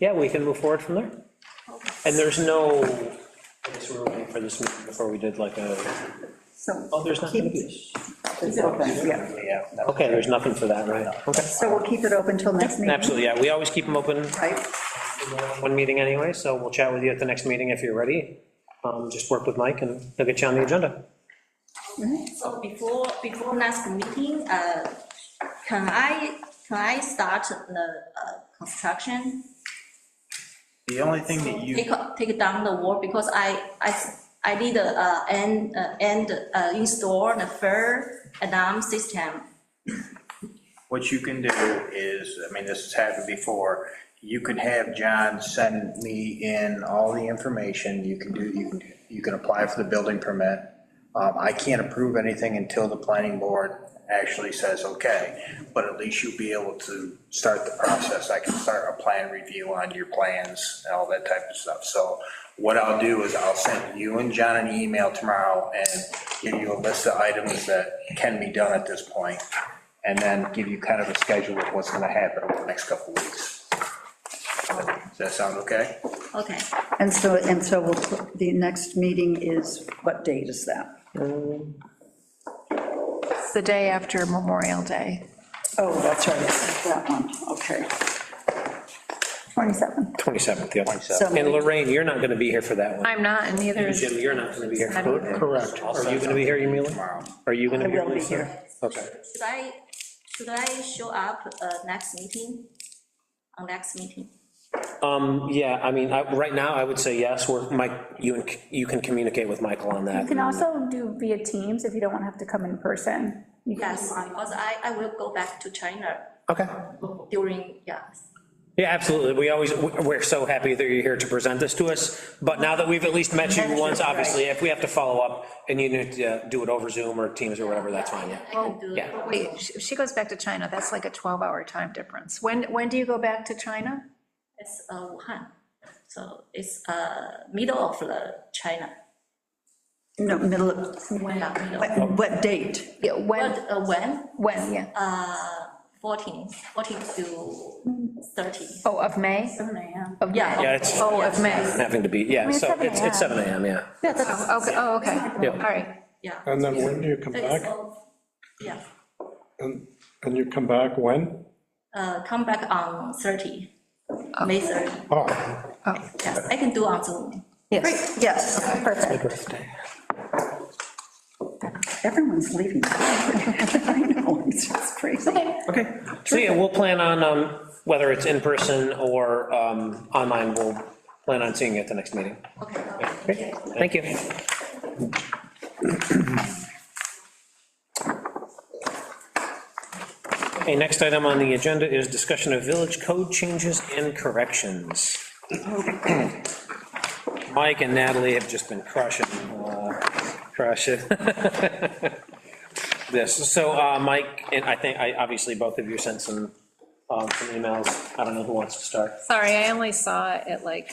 yeah, we can move forward from there. And there's no, I guess we were waiting for this meeting before we did like a, So oh, there's not gonna be. keep it open, yeah. Okay, there's nothing for that, right? Okay. So we'll keep it open till next meeting. Absolutely, yeah, we always keep them open, Right, one meeting anyway, so we'll chat with you at the next meeting if you're ready. Um, Just work with Mike and he'll get you on the agenda. Mm-hmm. So before, before next meeting, uh, can I, can I start the uh, construction? The only thing that you, Take, take down the wall because I, I, I did, uh, and, uh, and uh, install the fire alarm system. what you can do is, I mean, this has happened before, you can have John send me in all the information, you can do, you can, you can apply for the building permit. Um, I can't approve anything until the planning board actually says, okay, but at least you'll be able to start the process. I can start a plan review on your plans and all that type of stuff. So what I'll do is I'll send you and John an email tomorrow and give you a list of items that can be done at this point, and then give you kind of a schedule of what's gonna happen over the next couple of weeks. Does that sound okay? Okay, and so, and so we'll, put- the next meeting is, what date is that? It's the day after Memorial Day. Oh, that's right, it's that one, okay. 27. 27th, yeah. So And Lorraine, you're not gonna be here for that one. I'm not, and neither is, Jim, you're not gonna be here. I don't know. Correct. Are you gonna be here, Yumila? Tomorrow. Are you I gonna be here? will be Lisa? here. Okay. should I, should I show up uh, next meeting? On next meeting? Um, yeah, I mean, I, right now, I would say yes, we're, Mike, you and, you can communicate with Michael on that. You can also do via Teams if you don't want to have to come in person. You can Yes, because I, I will go back to China Okay. during, yeah, Yeah, absolutely, we always, we're so happy that you're here to present this to us, but now that we've at least met you once, obviously, if we have to follow up and you need to uh, do it over Zoom or Teams or whatever, that's fine, yeah. I Oh, can do. yeah. wait, she she goes back to China, that's like a 12-hour time difference. When, when do you go back to China? It's uh, Wuhan, so it's uh, middle of the China. No, middle of, Yeah, middle. what, what date? Yeah, when, But uh, when? when, yeah, Uh, 14, 14 to 30. oh, of May? Of Yeah. May. Yeah, it's Oh, of May, having to be, yeah, so it's, it's 7 AM, yeah. oh, okay, oh, okay, all right. Yeah. And then when do you come It's back? all- Yeah, And, and you come back when? uh, come back on 30, May 30. Oh, Yes, I can do on Zoom. Yes. Yes, perfect. Everyone's leaving. I know, it's just crazy. Okay. So, yeah, we'll plan on, um, whether it's in person or, um, online, we'll plan on seeing you at the next meeting. Okay, okay. Thank you. Okay, next item on the agenda is discussion of village code changes and corrections. Mike and Natalie have just been crushing, uh, crushing this. So, uh, Mike, and I think, I, obviously, both of you sent some, um, some emails. I don't know who wants to start. Sorry, I only saw it at like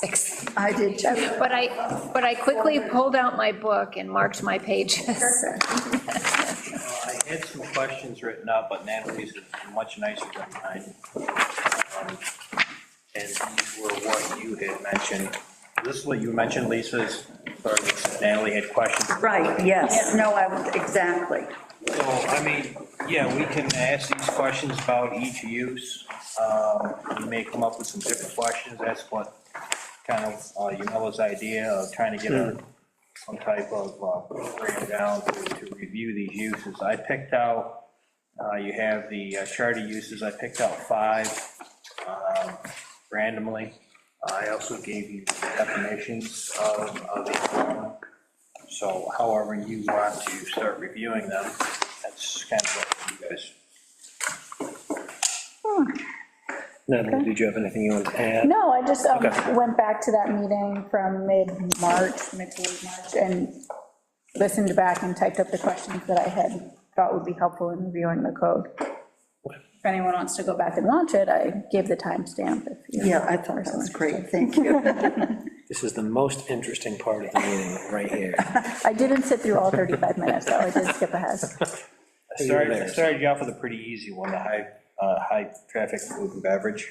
6. I did, too. But I, but I quickly pulled out my book and marked my pages. I had some questions written up, but Natalie's is much nicer than mine. Um, And these were what you had mentioned. This is what you mentioned, Lisa's, or Natalie had questions. right, yes, no, I, would- exactly. So, I mean, yeah, we can ask these questions about each use. Um, We may come up with some different questions. That's what kind of, uh, Yamila's idea of trying to get a, some type of uh, program down to to review these uses. I picked out, uh, you have the uh, charter uses. I picked out five um, randomly. I also gave you the definitions of, of each one. So however you want to start reviewing them, that's kind of what you guys. Natalie, did you have anything you wanted to add? No, I just um, Okay. went back to that meeting from mid-March, mid to late March, and listened back and typed up the questions that I had thought would be helpful in reviewing the code. If anyone wants to go back and watch it, I gave the timestamp. if you- Yeah, I thought that was great, thank you. This is the most interesting part of the meeting, right here. I didn't sit through all 35 minutes, though, I did skip ahead. I started, I started you off with a pretty easy one, the high, uh, high traffic food and beverage.